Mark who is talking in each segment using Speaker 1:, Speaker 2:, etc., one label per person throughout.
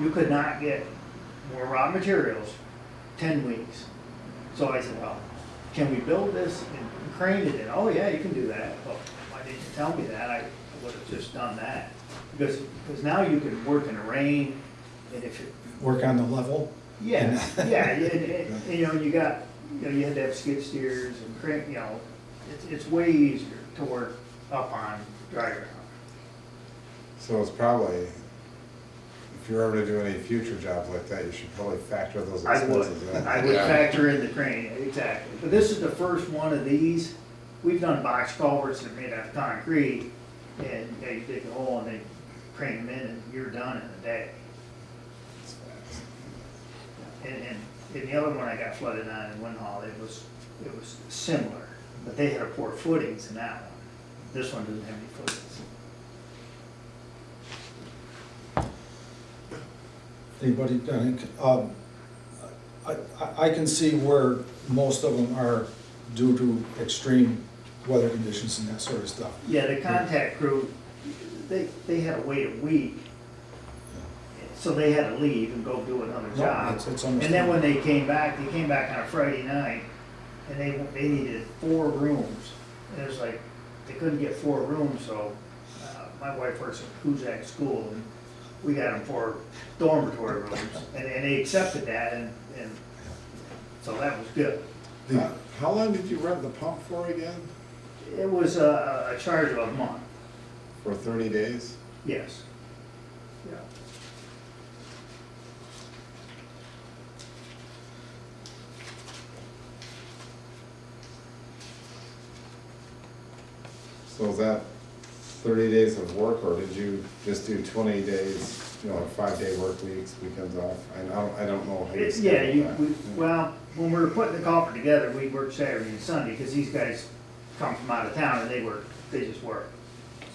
Speaker 1: you could not get more raw materials ten weeks. So I said, well, can we build this and crane it in? Oh, yeah, you can do that. Well, why didn't you tell me that? I would have just done that. Because, because now you can work in the rain and if it
Speaker 2: work on the level.
Speaker 1: Yes, yeah, and, and, and, you know, you got, you know, you had to have skid steers and crank, you know, it's, it's way easier to work up on dry ground.
Speaker 3: So it's probably, if you're ever to do any future jobs like that, you should probably factor those
Speaker 1: I would,
Speaker 3: expenses in.
Speaker 1: I would
Speaker 3: Yeah.
Speaker 1: factor in the crane, exactly, but this is the first one of these, we've done box culverts that are made out of concrete, and they dig a hole and they crane them in, and you're done in a day. And, and, and the other one I got flooded on in Winhall, it was, it was similar, but they had a poor footings in that one. This one doesn't have any footings.
Speaker 2: Anybody, done it? um, I, I, I can see where most of them are due to extreme weather conditions and that sort of stuff.
Speaker 1: Yeah, the contact crew, they, they had to wait a week. So they had to leave and go do another
Speaker 2: No,
Speaker 1: job.
Speaker 2: it's- it's
Speaker 1: And then
Speaker 2: understandable.
Speaker 1: when they came back, they came back on a Friday night, and they, they needed four rooms. And it was like, they couldn't get four rooms, so, uh, my wife works at Kuzak School, and we got them four dormitory rooms. And, and they accepted that, and, and, so that was good.
Speaker 3: Uh, How long did you rent the pump for again?
Speaker 1: It was a, a charge of a month,
Speaker 3: For thirty days?
Speaker 1: yes. Yeah.
Speaker 3: So is that thirty days of work, or did you just do twenty days, you know, like five-day work weeks, weekends off? I don't, I don't know how you
Speaker 1: It's, yeah, you,
Speaker 3: schedule that.
Speaker 1: we, well, when we were putting the culvert together, we worked Saturday and Sunday, because these guys come from out of town and they work, they just work.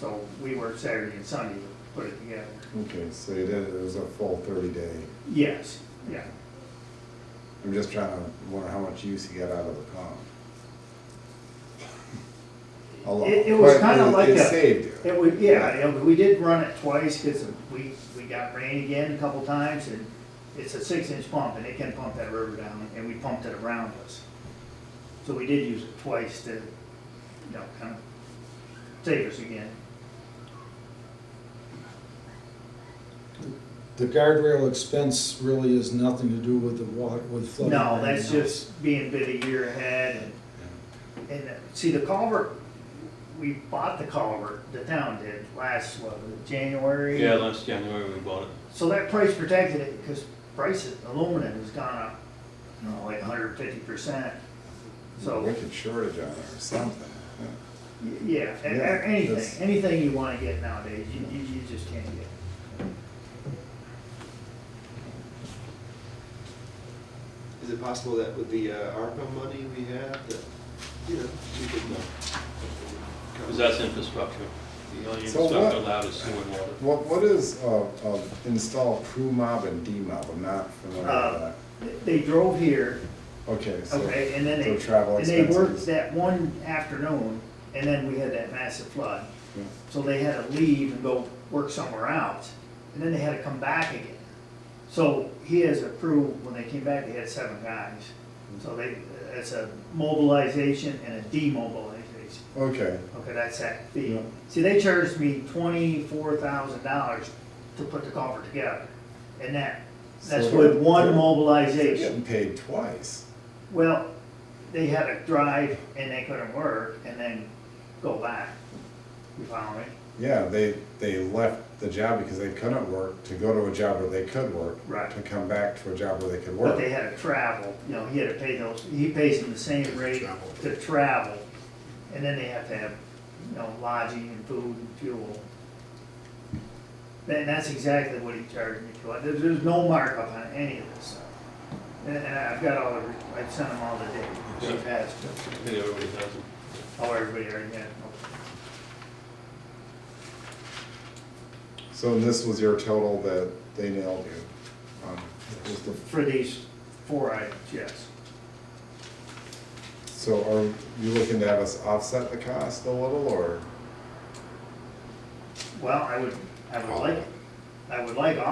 Speaker 1: So we worked Saturday and Sunday to put it together.
Speaker 3: Okay, so you did, it was a full thirty day.
Speaker 1: Yes, yeah.
Speaker 3: I'm just trying to wonder how much use you got out of the pump. A lot.
Speaker 1: It, it was
Speaker 3: But
Speaker 1: kinda like
Speaker 3: It
Speaker 1: a-
Speaker 3: saved you.
Speaker 1: It would, yeah, you know, we did run it twice, because we, we got rain again a couple times, and it's a six-inch pump, and it can pump that river down, and we pumped it around us. So we did use it twice to, you know, kind of save us again.
Speaker 2: The guardrail expense really has nothing to do with the water, with flooding.
Speaker 1: No,
Speaker 2: or
Speaker 1: that's
Speaker 2: anything
Speaker 1: just being bid a year ahead and, and, uh, see, the culvert, we bought the culvert, the town did, last, what, was it January?
Speaker 4: Yeah, last January we bought it.
Speaker 1: So that price protected it because price of aluminum has gone up, you know, like hundred fifty percent. So,
Speaker 3: Wicked shortage on it or something.
Speaker 1: y- yeah, a-
Speaker 3: Yeah,
Speaker 1: a- anything,
Speaker 3: that's-
Speaker 1: anything you wanna get nowadays, you, you, you just can't get.
Speaker 5: Is it possible that with the uh, ARPA money we have, that, you know, we could, uh,
Speaker 4: Because that's infrastructure. The only
Speaker 3: So what-
Speaker 4: infrastructure allowed is sewer and water.
Speaker 3: What, what is, uh, uh, install crew mob and demob? I'm not familiar with
Speaker 1: Uh,
Speaker 3: that.
Speaker 1: They drove here,
Speaker 3: Okay, so.
Speaker 1: okay, and then
Speaker 3: so
Speaker 1: they,
Speaker 3: travel
Speaker 1: and they worked
Speaker 3: expenses.
Speaker 1: that one afternoon and then we had that massive flood.
Speaker 3: Yeah.
Speaker 1: So they had to leave and go work somewhere else, and then they had to come back again. So he has a crew, when they came back, they had seven guys. So they, it's a mobilization and a demobilization.
Speaker 3: Okay,
Speaker 1: Okay, that's that fee.
Speaker 3: Yeah.
Speaker 1: See, they charged me twenty-four thousand dollars to put the culvert together, and that, that's
Speaker 3: So-
Speaker 1: with one
Speaker 3: they're
Speaker 1: mobilization.
Speaker 3: getting paid twice.
Speaker 1: Well, they had to drive and they couldn't work and then go back. You follow me?
Speaker 3: Yeah, they, they left the job because they couldn't work to go to a job where they could work.
Speaker 1: Right.
Speaker 3: To come back to a job where they could work.
Speaker 1: But they had to travel, you know, he had to pay those, he pays them the same rate
Speaker 3: Travel.
Speaker 1: to travel. And then they have to have, you know, lodging and food and fuel. And that's exactly what he charged me for. There's, there's no markup on any of this stuff. And, and I've got all the, I've sent them all the data.
Speaker 4: Yeah.
Speaker 1: Chief has,
Speaker 4: I think everybody has them.
Speaker 1: oh, everybody already had.
Speaker 3: So this was your total that they nailed you on, just the
Speaker 1: For these four items, yes.
Speaker 3: So are you looking to have us offset the cost a little, or?
Speaker 1: Well, I would, I would like, I would like